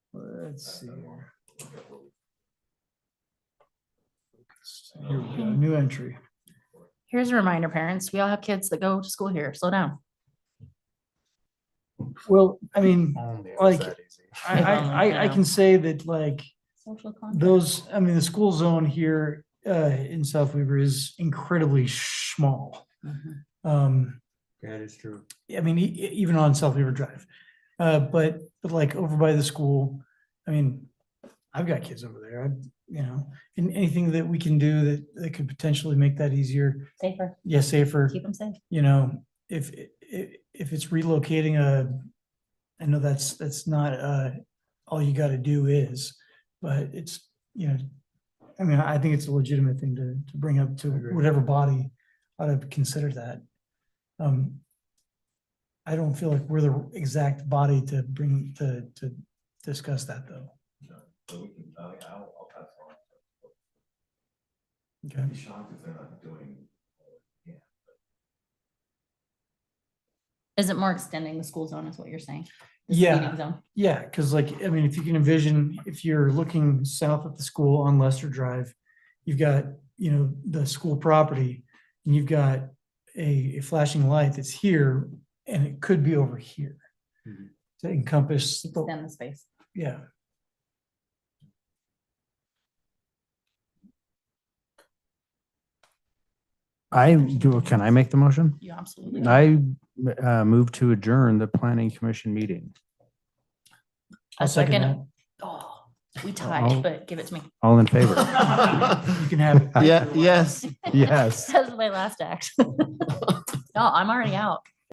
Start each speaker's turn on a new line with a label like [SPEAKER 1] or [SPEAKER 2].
[SPEAKER 1] Let's see here. Here we go,
[SPEAKER 2] Here
[SPEAKER 1] new entry.
[SPEAKER 3] Here's a reminder, parents, we all have kids that go to school here. Slow down.
[SPEAKER 1] Well, I mean, Like, I, I, I, I
[SPEAKER 3] Yeah.
[SPEAKER 1] can say that like
[SPEAKER 3] Social
[SPEAKER 1] those, I mean, the school zone here, uh, in South Weaver is incredibly small.
[SPEAKER 3] Mhm.
[SPEAKER 1] Um,
[SPEAKER 2] That is true.
[SPEAKER 1] I mean, e- e- even on South Weaver Drive. Uh, but, but like over by the school, I mean, I've got kids over there, I, you know, and anything that we can do that, that could potentially make that easier,
[SPEAKER 3] Safer,
[SPEAKER 1] yes, safer.
[SPEAKER 3] keep them safe.
[SPEAKER 1] you know, if, if, if it's relocating a, I know that's, that's not, uh, all you gotta do is, but it's, you know, I mean, I think it's a legitimate thing to, to bring up to
[SPEAKER 2] I agree.
[SPEAKER 1] whatever body ought to consider that. Um, I don't feel like we're the exact body to bring, to, to discuss that though.
[SPEAKER 2] So we can, I, I'll, I'll pass on.
[SPEAKER 1] Okay.
[SPEAKER 2] I'd be shocked if they're not doing.
[SPEAKER 3] Is it more extending the school zone is what you're saying? The
[SPEAKER 1] Yeah.
[SPEAKER 3] speeding zone?
[SPEAKER 1] Yeah, because like, I mean, if you can envision, if you're looking south at the school on Lester Drive, you've got, you know, the school property, and you've got a a flashing light that's here, and it could be over here.
[SPEAKER 2] Mhm.
[SPEAKER 1] To encompass, the-
[SPEAKER 3] Extend the space.
[SPEAKER 1] yeah,
[SPEAKER 4] I do, can I make the motion?
[SPEAKER 3] You absolutely.
[SPEAKER 4] I uh, move to adjourn the planning commission meeting.
[SPEAKER 1] I'll
[SPEAKER 3] A
[SPEAKER 1] second
[SPEAKER 3] second.
[SPEAKER 1] that.
[SPEAKER 3] Oh, we tied,
[SPEAKER 4] Uh-oh.
[SPEAKER 3] but give it to me.
[SPEAKER 4] All in favor?
[SPEAKER 1] You can have, it.
[SPEAKER 5] Yeah, yes.
[SPEAKER 4] Yes.
[SPEAKER 3] That's my last act. No, I'm already out.